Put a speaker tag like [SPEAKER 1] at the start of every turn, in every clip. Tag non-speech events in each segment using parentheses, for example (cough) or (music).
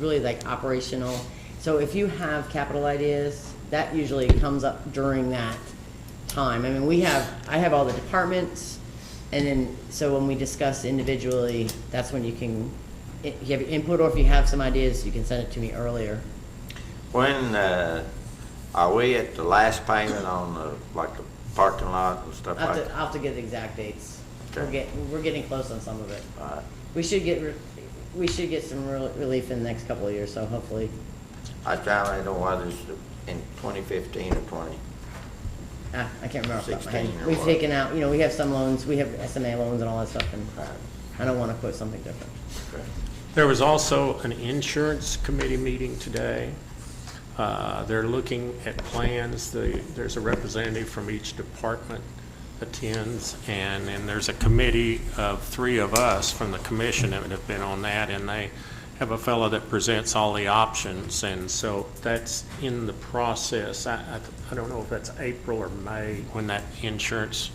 [SPEAKER 1] really like operational. So if you have capital ideas, that usually comes up during that time. I mean, we have, I have all the departments, and then, so when we discuss individually, that's when you can, if you have input, or if you have some ideas, you can send it to me earlier.
[SPEAKER 2] When, uh, are we at the last payment on the, like the parking lot and stuff
[SPEAKER 1] I'll
[SPEAKER 2] like
[SPEAKER 1] have to,
[SPEAKER 2] that?
[SPEAKER 1] I'll have to get the exact dates. We're
[SPEAKER 2] Okay.
[SPEAKER 1] getting, we're getting close on some of it.
[SPEAKER 2] All right.
[SPEAKER 1] We should get, re- we should get some rel- relief in the next couple of years, so hopefully.
[SPEAKER 2] I try to know whether it's in twenty fifteen or twenty.
[SPEAKER 1] Ah, I can't remember off the top of my
[SPEAKER 2] 16
[SPEAKER 1] head.
[SPEAKER 2] or
[SPEAKER 1] We've
[SPEAKER 2] what?
[SPEAKER 1] taken out, you know, we have some loans, we have SMA loans and all that stuff, and
[SPEAKER 2] Right.
[SPEAKER 1] I don't want to quote something different.
[SPEAKER 2] Okay.
[SPEAKER 3] There was also an insurance committee meeting today. Uh, They're looking at plans. The- There's a representative from each department attends, and then there's a committee of three of us from the commission that have been on that, and they have a fellow that presents all the options, and so that's in the process. I- I I don't know if that's April or May, when that insurance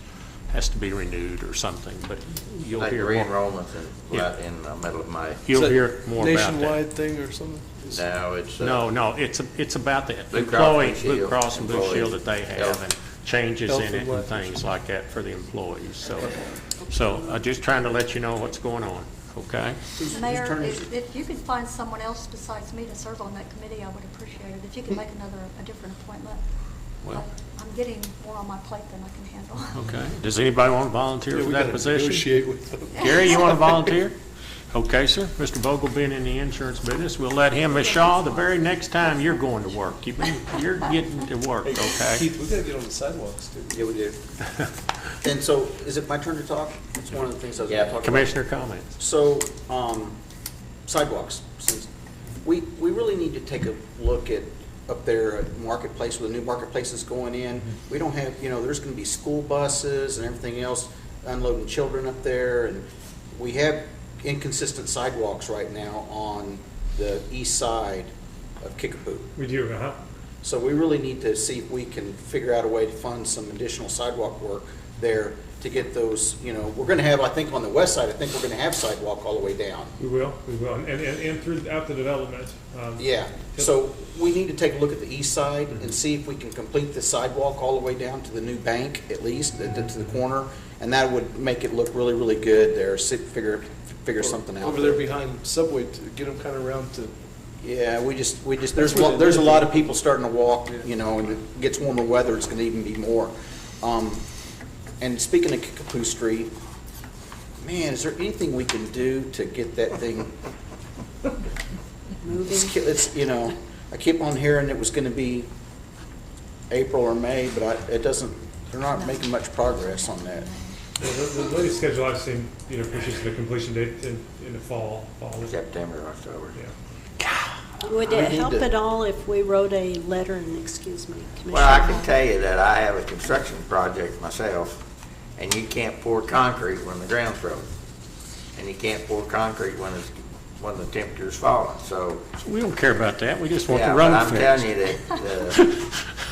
[SPEAKER 3] has to be renewed or something, but you'll
[SPEAKER 2] Like
[SPEAKER 3] hear more,
[SPEAKER 2] re-enrollment's in,
[SPEAKER 3] Yeah.
[SPEAKER 2] right in the middle of May.
[SPEAKER 3] you'll
[SPEAKER 4] Is that
[SPEAKER 3] hear more about that.
[SPEAKER 4] Nationwide thing or something?
[SPEAKER 2] Now it's. uh,
[SPEAKER 3] No, no, it's, it's about the
[SPEAKER 2] Blue Cross Blue
[SPEAKER 3] employee, Blue
[SPEAKER 2] Shield
[SPEAKER 3] Cross and Blue
[SPEAKER 2] employees.
[SPEAKER 3] Shield that they have
[SPEAKER 2] Health.
[SPEAKER 3] and changes
[SPEAKER 4] Health
[SPEAKER 3] in
[SPEAKER 4] and
[SPEAKER 3] it and
[SPEAKER 4] life
[SPEAKER 3] things like that for the employees, so. So I'm just trying to let you know what's going on, okay?
[SPEAKER 5] Mayor, if if you can find someone else besides me to serve on that committee, I would appreciate it. If you can make another, a different appointment.
[SPEAKER 3] Well-
[SPEAKER 5] I- I'm getting more on my plate than I can handle.
[SPEAKER 3] Okay. Does anybody want to volunteer
[SPEAKER 4] Yeah,
[SPEAKER 3] for
[SPEAKER 4] we
[SPEAKER 3] that
[SPEAKER 4] gotta
[SPEAKER 3] position?
[SPEAKER 4] negotiate with them.
[SPEAKER 3] Gary, you want to volunteer? Okay, sir. Mr. Vogel being in the insurance business, we'll let him, Ms. Shaw, the very next time you're going to work, you've been, you're getting to work, okay?
[SPEAKER 4] Keith, we gotta get on the sidewalks, dude.
[SPEAKER 6] Yeah, we do. And so, is it my turn to talk? It's one of the things I was
[SPEAKER 2] Yeah.
[SPEAKER 6] gonna talk about.
[SPEAKER 3] Commissioner comments?
[SPEAKER 6] So, um, sidewalks, since, we, we really need to take a look at, up there at Marketplace, where the new Marketplace is going in. We don't have, you know, there's gonna be school buses and everything else unloading children up there, and we have inconsistent sidewalks right now on the east side of Kickapoo.
[SPEAKER 7] We do, huh?
[SPEAKER 6] So we really need to see if we can figure out a way to fund some additional sidewalk work there to get those, you know, we're gonna have, I think on the west side, I think we're gonna have sidewalk all the way down.
[SPEAKER 7] We will, we will, and, and, and throughout the development. um,
[SPEAKER 6] Yeah, so we need to take a look at the east side and see if we can complete the sidewalk all the way down to the new bank at least, to to the corner. And that would make it look really, really good there, see, figure, figure something out.
[SPEAKER 4] Over there behind Subway, to get them kinda around to,
[SPEAKER 6] Yeah, we just, we just, there's,
[SPEAKER 4] That's what
[SPEAKER 6] lo-
[SPEAKER 4] they
[SPEAKER 6] there's a
[SPEAKER 4] do.
[SPEAKER 6] lot of people starting to walk, you know, and it gets warmer weather, it's gonna even be more. Um, And speaking of Kickapoo Street, man, is there anything we can do to get that thing? It's, ki- it's, you know, I keep on hearing it was gonna be April or May, but I, it doesn't, they're not making much progress on that.
[SPEAKER 7] well, The the latest schedule I've seen, you know, pushes the completion date in, in the fall, fall, yeah.
[SPEAKER 2] September, October.
[SPEAKER 8] Would
[SPEAKER 6] We
[SPEAKER 8] it
[SPEAKER 6] need
[SPEAKER 8] help
[SPEAKER 6] to-
[SPEAKER 8] at all if we wrote a letter, and excuse me, Commissioner?
[SPEAKER 2] Well, I can
[SPEAKER 8] Hall?
[SPEAKER 2] tell you that I have a construction project myself, and you can't pour concrete when the ground's frozen. And you can't pour concrete when it's, when the temperature's falling, so.
[SPEAKER 3] We don't care about that, we just want the
[SPEAKER 2] Yeah,
[SPEAKER 3] road
[SPEAKER 2] but
[SPEAKER 3] fixed.
[SPEAKER 2] I'm telling you that,
[SPEAKER 7] (laughs)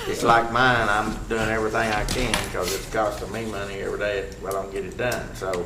[SPEAKER 2] uh, it's like mine, I'm doing everything I can, because it's costing me money every day if I don't get it done, so.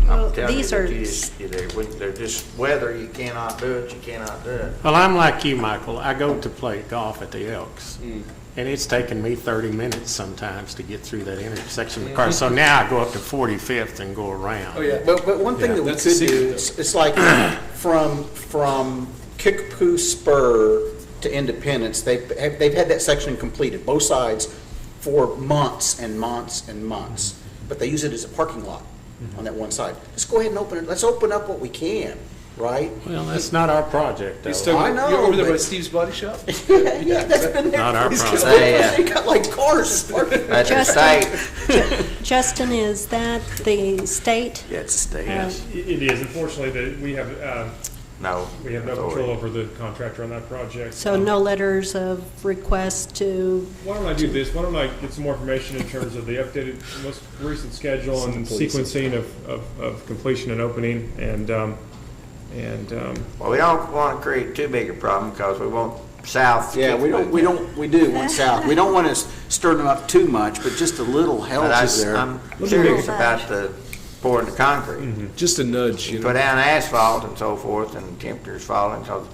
[SPEAKER 2] I'm
[SPEAKER 8] Well,
[SPEAKER 2] telling you
[SPEAKER 8] these
[SPEAKER 2] that
[SPEAKER 8] are
[SPEAKER 2] you just, you know, when- they're just, whether you cannot do it, you cannot do
[SPEAKER 8] (laughs)
[SPEAKER 2] it.
[SPEAKER 3] Well, I'm like you, Michael. I go to play golf at the Elks,
[SPEAKER 4] Mm.
[SPEAKER 3] and it's taken me 30 minutes sometimes to get through that intersection of the car. So now I go up to 45th and go around.
[SPEAKER 4] oh yeah.
[SPEAKER 6] But, but one thing
[SPEAKER 3] Yeah,
[SPEAKER 6] that we
[SPEAKER 4] that's a
[SPEAKER 6] could
[SPEAKER 4] secret,
[SPEAKER 6] do,
[SPEAKER 4] though.
[SPEAKER 6] it's, it's like (clears throat) from, from Kickapoo Spur to Independence, they've, have- they've had that section completed, both sides, for months and months and months. But they use it as a parking lot on that one side. Let's go ahead and open it, let's open up what we can, right?
[SPEAKER 3] Well, that's not our project,
[SPEAKER 4] He's
[SPEAKER 3] though.
[SPEAKER 4] still,
[SPEAKER 6] I
[SPEAKER 4] you
[SPEAKER 6] know,
[SPEAKER 4] over there by
[SPEAKER 6] but-
[SPEAKER 4] Steve's Body Shop?
[SPEAKER 6] Yeah, that's been there.
[SPEAKER 3] Not
[SPEAKER 4] (laughs)
[SPEAKER 3] our
[SPEAKER 6] It's
[SPEAKER 3] problem.
[SPEAKER 2] They, uh,
[SPEAKER 6] (laughs) They got like cars parked.
[SPEAKER 2] That's the
[SPEAKER 8] Justin.
[SPEAKER 2] state.
[SPEAKER 8] (laughs) Justin, is that the state?
[SPEAKER 2] Yeah, it's a state.
[SPEAKER 8] Yes.
[SPEAKER 7] It it is, unfortunately, that we have, um,
[SPEAKER 2] No.
[SPEAKER 7] we have no control over the contractor on that project.
[SPEAKER 8] So
[SPEAKER 7] Um,
[SPEAKER 8] no letters of request to,
[SPEAKER 7] Why don't I do this? Why don't I get some more information in terms of the updated, most recent schedule and
[SPEAKER 4] Please.
[SPEAKER 7] sequencing of, of, of completion and opening, and, um, and, um,
[SPEAKER 2] Well, we don't want to create too big a problem, because we want south. to
[SPEAKER 6] Yeah,
[SPEAKER 2] keep
[SPEAKER 6] we don't,
[SPEAKER 2] moving.
[SPEAKER 6] we don't, we do, one south. We don't want to stir them up too much, but just a little help
[SPEAKER 2] But I,
[SPEAKER 6] is there.
[SPEAKER 2] I'm curious about the pouring the concrete.
[SPEAKER 4] Just a nudge, you
[SPEAKER 2] You
[SPEAKER 4] know?
[SPEAKER 7] Mm-hmm.
[SPEAKER 2] put down asphalt and so forth, and temperature's falling, so